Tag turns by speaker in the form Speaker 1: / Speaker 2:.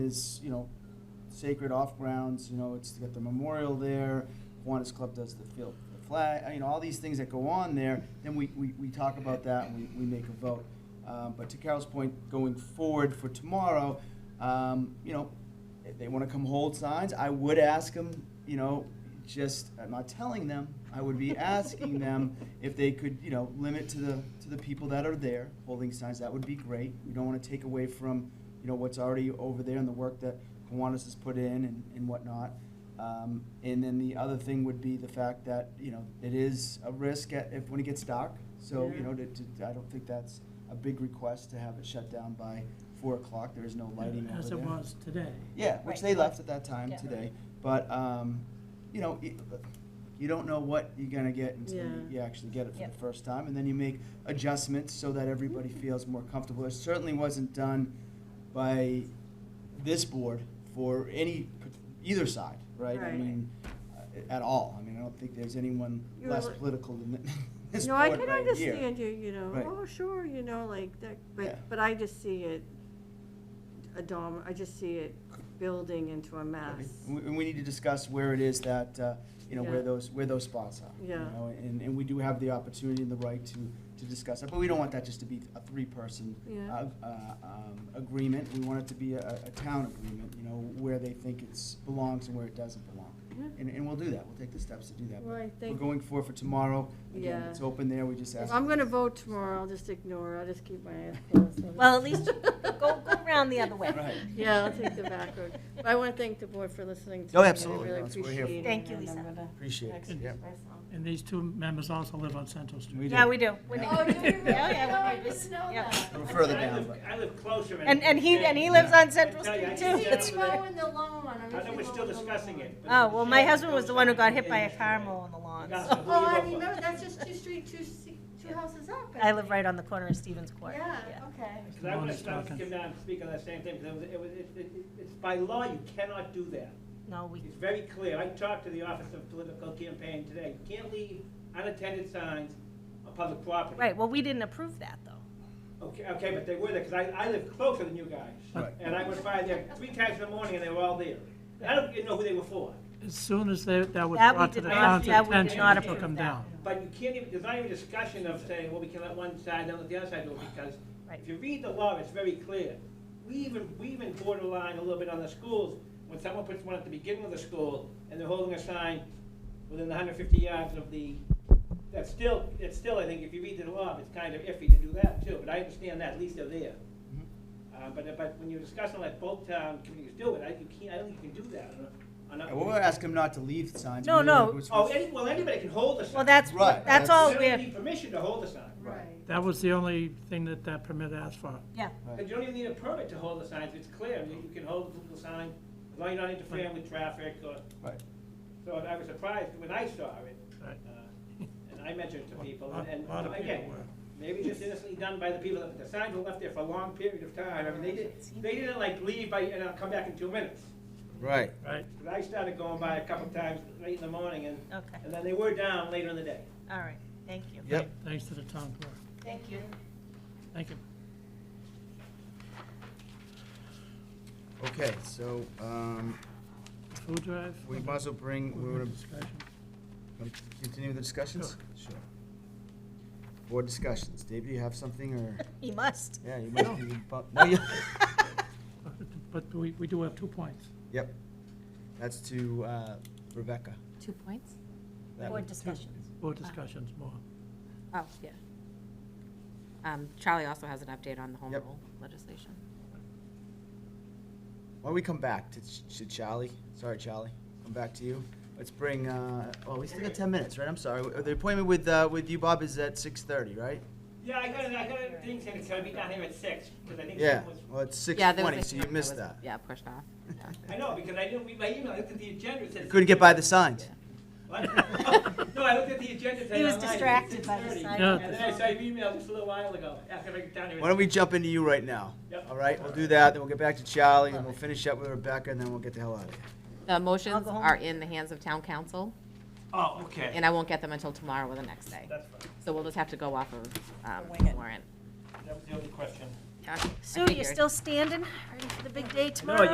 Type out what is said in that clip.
Speaker 1: is, you know, sacred off grounds, you know, it's got the memorial there, Kiwanis Club does the field, the flag, you know, all these things that go on there, then we, we, we talk about that and we, we make a vote. Um, but to Carol's point, going forward for tomorrow, um, you know, if they wanna come hold signs, I would ask them, you know, just, I'm not telling them, I would be asking them if they could, you know, limit to the, to the people that are there holding signs, that would be great. We don't wanna take away from, you know, what's already over there and the work that Kiwanis has put in and, and whatnot. Um, and then the other thing would be the fact that, you know, it is a risk at, if, when it gets dark. So, you
Speaker 2: Yeah.
Speaker 1: know, to, to, I don't think that's a big request to have it shut down by four o'clock, there is no lighting over there.
Speaker 2: As it was today.
Speaker 1: Yeah, which
Speaker 3: Right.
Speaker 1: they left at that time
Speaker 3: Yeah.
Speaker 1: today, but, um, you know, it- you don't know what you're gonna get until you-
Speaker 2: Yeah.
Speaker 1: you actually get it for
Speaker 3: Yep.
Speaker 1: the first time, and then you make adjustments so that everybody feels more comfortable. It certainly wasn't done by this board for any, either side, right? I
Speaker 2: Right.
Speaker 1: mean, uh, at all, I mean, I don't think there's anyone
Speaker 4: You
Speaker 1: less
Speaker 4: were-
Speaker 1: political than th- this
Speaker 4: No,
Speaker 1: board right
Speaker 4: I
Speaker 1: here.
Speaker 4: can understand you, you know,
Speaker 1: Right.
Speaker 4: oh, sure, you know, like that,
Speaker 1: Yeah.
Speaker 4: but, but I just see it, a dom, I just see it building into a mass.
Speaker 1: And we- and we need to discuss where it is that, uh, you know, where
Speaker 4: Yeah.
Speaker 1: those, where those spots are. you
Speaker 4: Yeah.
Speaker 1: know, And, and we do have the opportunity and the right to, to discuss that, but we don't want that just to be a three-person
Speaker 4: Yeah.
Speaker 1: uh, uh, um, agreement. We want it to be a, a town agreement, you know, where they think it's, belongs and where it doesn't belong.
Speaker 4: Yeah.
Speaker 1: And, and we'll do that, we'll take the steps to do that.
Speaker 4: Well, I
Speaker 1: We're
Speaker 4: think,
Speaker 1: going for, for tomorrow, again,
Speaker 4: Yeah.
Speaker 1: it's open there, we just
Speaker 4: if
Speaker 1: ask.
Speaker 4: I'm gonna vote tomorrow, I'll just ignore, I'll just keep my eyes closed.
Speaker 3: Well, at least go, go around the other way.
Speaker 1: Right.
Speaker 4: Yeah, I'll take the back road, but I wanna thank the board for listening to
Speaker 1: Oh,
Speaker 4: me, I
Speaker 1: absolutely.
Speaker 4: really
Speaker 1: That's what we're here for.
Speaker 4: appreciate it.
Speaker 3: Thank you,
Speaker 4: and I'm
Speaker 3: Lisa.
Speaker 4: gonna
Speaker 1: Appreciate it.
Speaker 4: excuse
Speaker 1: Yeah.
Speaker 4: myself.
Speaker 2: And these two members also live on Central Street.
Speaker 1: We
Speaker 3: Yeah,
Speaker 1: do.
Speaker 3: we do. We're
Speaker 1: Yeah. Oh,
Speaker 3: neighbors.
Speaker 2: do you really?
Speaker 3: Yeah, yeah, we're
Speaker 2: No, I
Speaker 3: neighbors.
Speaker 5: didn't know
Speaker 3: Yeah.
Speaker 5: that.
Speaker 1: We're further
Speaker 6: I
Speaker 1: down,
Speaker 6: live-
Speaker 1: but.
Speaker 6: I live closer.
Speaker 3: And, and he, and he lives on Central
Speaker 6: Yeah,
Speaker 3: Street
Speaker 6: I
Speaker 3: too.
Speaker 6: see
Speaker 3: That's
Speaker 6: it.
Speaker 3: why-
Speaker 5: mowing the lawn.
Speaker 6: I know we're still discussing it. but
Speaker 3: Oh, well, my
Speaker 6: Michelle
Speaker 3: husband was the one who got hit by a car
Speaker 6: yesterday.
Speaker 3: mowing the lawn,
Speaker 6: Yeah.
Speaker 3: so.
Speaker 5: Oh, I remember, that's just two street, two, se- two houses up.
Speaker 3: I live right on the corner of Stevens Court.
Speaker 5: Yeah, okay.
Speaker 6: Because I want to come down and speak on that same thing, because it was, it, it, it's by law, you cannot do that.
Speaker 3: No, we,
Speaker 6: It's very clear. I talked to the Office of Political Campaign today. You can't leave unattended signs on public property.
Speaker 3: right, well, we didn't approve that though.
Speaker 6: Okay, okay, but they were there, because I, I live closer than you guys.
Speaker 1: Right.
Speaker 6: And I was by there three times in the morning, and they were all there. I don't even know who they were for.
Speaker 2: As soon as they, that was
Speaker 3: That we
Speaker 2: brought to
Speaker 3: did
Speaker 2: the
Speaker 6: not-
Speaker 2: town's
Speaker 6: that we did
Speaker 2: attention,
Speaker 6: not
Speaker 2: they took
Speaker 6: approve
Speaker 2: them
Speaker 3: that.
Speaker 2: down.
Speaker 6: But you can't even, there's not even a discussion of saying, well, we can let one side, then let the other side do it, because
Speaker 3: Right.
Speaker 6: if you read the law, it's very clear. We even, we even borderline a little bit on the schools, when someone puts one at the beginning of the school, and they're holding a sign within the hundred fifty yards of the, that's still, it's still, I think, if you read the law, it's kind of iffy to do that too, but I understand that, at least they're there.
Speaker 3: Mm-hmm.
Speaker 6: Uh, but, but when you're discussing like both town communities do it, I, you can't, I don't think you can do that on a, on
Speaker 1: Yeah,
Speaker 6: a.
Speaker 1: Well, we'll ask them not to leave signs.
Speaker 3: No,
Speaker 1: We really-
Speaker 3: no.
Speaker 1: we're supposed
Speaker 6: Oh,
Speaker 1: to-
Speaker 6: any, well, anybody can hold a sign.
Speaker 3: Well, that's,
Speaker 1: Right,
Speaker 3: that's
Speaker 1: that's-
Speaker 3: all
Speaker 6: You don't
Speaker 3: we're,
Speaker 6: need permission to hold a sign.
Speaker 5: Right.
Speaker 2: That was the only thing that that permit asked for.
Speaker 3: yeah,
Speaker 6: And you don't even need a permit to hold the signs, it's clear, I mean, you can hold the sign, as long as you're not interfering with traffic or.
Speaker 1: Right.
Speaker 6: So I was surprised when I saw it,
Speaker 2: Right.
Speaker 6: uh, and I mentioned to people,
Speaker 2: A
Speaker 6: and
Speaker 2: lot of people
Speaker 6: again,
Speaker 2: were.
Speaker 6: maybe just innocently done by the people, that the signs were left there for a long period of time, I mean, they didn't, they didn't like leave by, and I'll come back in two minutes.
Speaker 1: Right.
Speaker 2: Right,
Speaker 6: But I started going by a couple of times late in the morning, and,
Speaker 3: okay,
Speaker 6: and then they were down later in the day.
Speaker 3: all right, thank you.
Speaker 1: Yep.
Speaker 2: thanks to the town clerk.
Speaker 3: Thank you.
Speaker 2: Thank you.
Speaker 1: Okay, so, um,
Speaker 2: Food drive?
Speaker 1: we might as well bring, we're
Speaker 2: Open
Speaker 1: gonna
Speaker 2: discussion.
Speaker 1: Um, Continue with the discussions? Sure. Board discussions. Dave, do you have something, or,
Speaker 3: He must.
Speaker 1: yeah, you might be, bu- no, you,
Speaker 2: But we, we do have two points.
Speaker 1: yep. That's to uh, Rebecca.
Speaker 7: Two points?
Speaker 1: That
Speaker 3: Board
Speaker 1: one.
Speaker 3: discussions.
Speaker 2: Board discussions more.
Speaker 7: Oh, yeah. Um, Charlie also has an update on the home
Speaker 1: Yep.
Speaker 7: rule legislation.
Speaker 1: Why don't we come back to Ch- to Charlie? Sorry, Charlie, come back to you. Let's bring, uh, oh, we still got ten minutes, right? I'm sorry. Uh, The appointment with, uh, with you, Bob, is at six thirty, right?
Speaker 6: Yeah, I got, I got a thing saying it's gonna be down here at six, because I think
Speaker 1: Yeah,
Speaker 6: someone was
Speaker 1: well, it's six
Speaker 7: Yeah, there was
Speaker 1: twenty,
Speaker 7: a
Speaker 1: so you
Speaker 7: hearing
Speaker 1: missed
Speaker 7: was-
Speaker 1: that.
Speaker 7: Yeah, pushed off. Yeah.
Speaker 6: I know, because I didn't read my email, I looked at the agenda, it said.
Speaker 1: Couldn't get by the signs.
Speaker 6: What? No, I looked at the agenda, it said.
Speaker 3: He was
Speaker 6: online, it said
Speaker 3: distracted by the
Speaker 6: 6:30.
Speaker 3: sign.
Speaker 2: Yeah.
Speaker 6: And then I saw your email just a little while ago, after I got down here.
Speaker 1: Why don't we jump into you right now?
Speaker 6: Yep.
Speaker 1: All right, we'll do that, then we'll get back to Charlie, and we'll finish up with Rebecca, and then we'll get the hell out of here.
Speaker 7: The motions
Speaker 3: go home.
Speaker 7: are in the hands of town council,
Speaker 6: Oh, okay,
Speaker 7: and I won't get them until tomorrow or the next day.
Speaker 6: that's fine,
Speaker 7: So we'll just have to go off of um,
Speaker 3: Wing it.
Speaker 7: warrant.
Speaker 6: that was the only question.
Speaker 7: Yeah, I
Speaker 3: Sue, you
Speaker 7: figured.
Speaker 3: still standing, ready for the big day
Speaker 6: No,
Speaker 3: tomorrow?